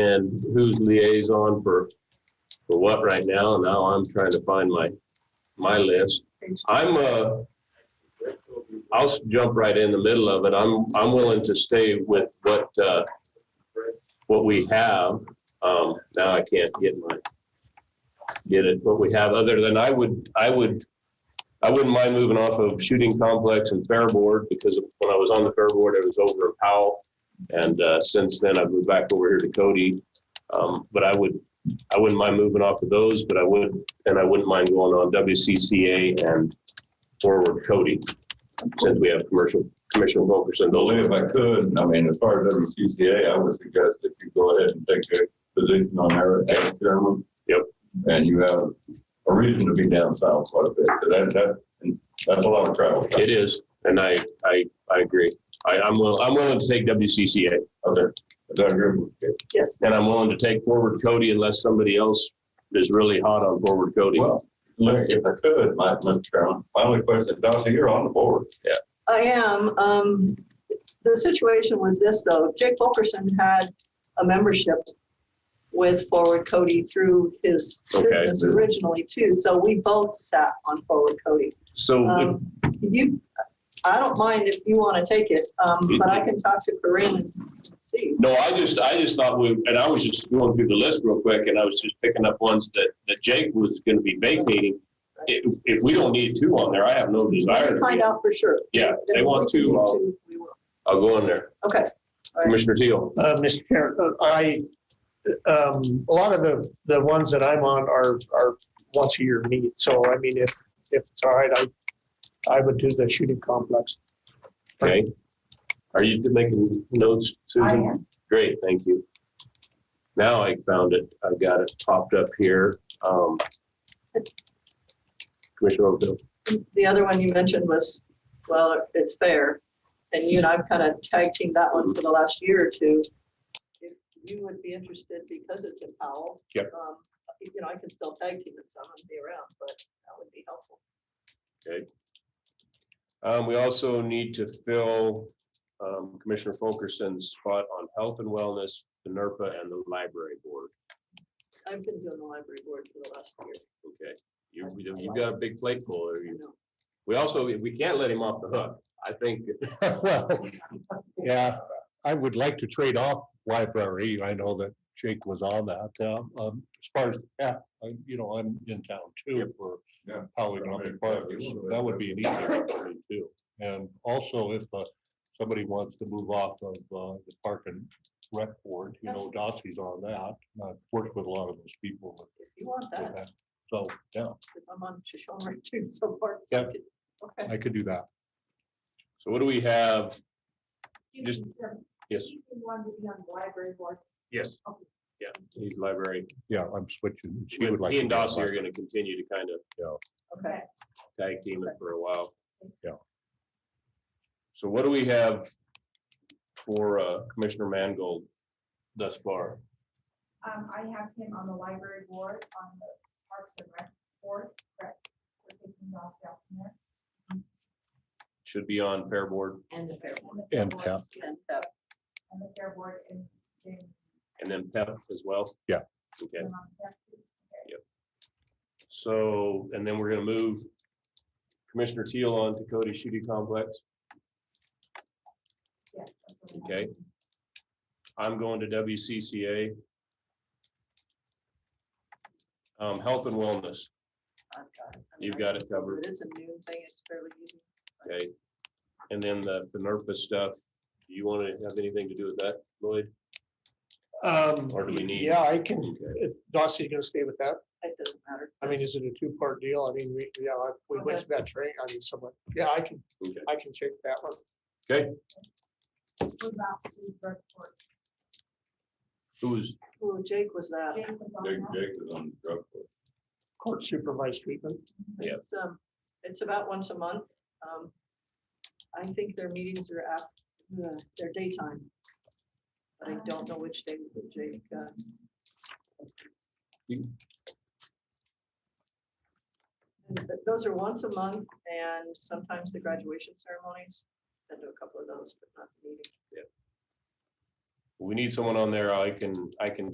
and who's liaison for, for what right now. Now I'm trying to find my, my list. I'm, uh, I'll s- jump right in the middle of it. I'm, I'm willing to stay with what, uh, what we have. Um, now I can't get my, get it, what we have, other than I would, I would, I wouldn't mind moving off of shooting complex and fair board because when I was on the fair board, it was over in Powell. And uh, since then, I've moved back over here to Cody. Um, But I would, I wouldn't mind moving off of those, but I would, and I wouldn't mind going on WCCA and forward Cody, since we have commercial, Commissioner Wilkerson. Well, Those if are- I could, I mean, as far as WCCA, I would suggest that you go ahead and take a position on there as chairman. Yep. And you have a reason to be down south quite a bit, 'cause that, that, that's a lot of travel. It is, and I, I, I agree. I, I'm willing, I'm willing to take WCCA, Okay. Is that agreeable? Yes. and I'm willing to take forward Cody unless somebody else is really hot on forward Cody. Well, look, if I could, my, Mr. Chairman, my only question, Darcy, you're on the board. I am. Um, the situation was this though, Jake Fulkerson had a membership with Forward Cody through his Okay. business originally too, so we both sat on Forward Cody. So if- Um, you, I don't mind if you want to take it, um, Mm-hmm. but I can talk to Corinne and see. No, I just, I just thought we, and I was just going through the list real quick, and I was just picking up ones that, that Jake was gonna be vacating. If, if we don't need two on there, I have no desire Let to me be, find out for sure. yeah, if they want uh, If we two, I'll, need to, we will. I'll go in there. Okay. All right. Commissioner Teal, Uh, Mr. Chair, uh, I, um, a lot of the, the ones that I'm on are, are once a year meet. So I mean, if, if it's all right, I, I would do the shooting complex. okay? Are you making notes, Susan? Great, thank you. Now I found it, I've got it popped up here. Um, Commissioner Overfield, The other one you mentioned was, well, it's fair. And you and I've kind of tag teamed that one for the last year or two. If you would be interested, because it's in Powell. Yep. um, You know, I can still tag team it, so I'm gonna be around, but that would be helpful. Um, we also need to fill, um, Commissioner Fulkerson's spot on health and wellness, the E NERPA and the library board. I've been doing the library board for the last year. Okay, you, you've got a big plate full. or I you- know. We also, we can't let him off the hook. I think, Well, Yeah, I would like to trade off library. I know that Jake was on that. um, um, As far as, yeah, I- you know, I'm in town too for Yeah. polynomial partners. That would be an easy one for me too. And also if uh, somebody wants to move off of uh, the park and rec board, you know, Dossie's on that. and I've worked with a lot of those people. with- If you want with that, that. So, yeah, because I'm on Shoshone too, so far. Yep. Okay. I could do that. so what do we have? Just- Yes, want to be on the library board. yes. Yeah, he's library. Yeah, I'm switching. She He would like. to and be on Dossie are library. gonna continue to kind of Okay. tag team it for a while. Yeah. So what do we have for uh, Commissioner Mangold thus far? Um, I have him on the library board, on the Parks and Rec board, correct? We're taking Ross out from there. Should be on Fair Board And the fair one. And, board- yeah, And that And the fair board and James. and then PEP as well? Yeah. Okay, Brown on that too. so, and then we're gonna move Commissioner Teal on to Cody Shooting Complex. Yes, that's what we Okay. I'm going to WCCA. Um, Health and Wellness, I've got it. I mean, you've I got it covered, But it's a new thing, it's fairly easy. okay? And then the the NERPA stuff, do you want to have anything to do with that, Lloyd? Um, Or do we need- Yeah, I can, Okay. Dossie's gonna stay with that. It doesn't matter. I mean, is it a two-part deal? I mean, we, yeah, I- we went to that train. I mean, someone, yeah, I can, Okay. I can check that one. Move out to the rec board. Who's, Well, Jake was that. James was on Jake, that. Jake is on the drug court. Court supervised treatment. Yeah. It's, um, it's about once a month. Um, I think their meetings are after, their daytime. But I don't know which day that Jake, uh, You- but those are once a month and sometimes the graduation ceremonies. I do a couple of those, but not the meeting. we need someone on there, I can, I can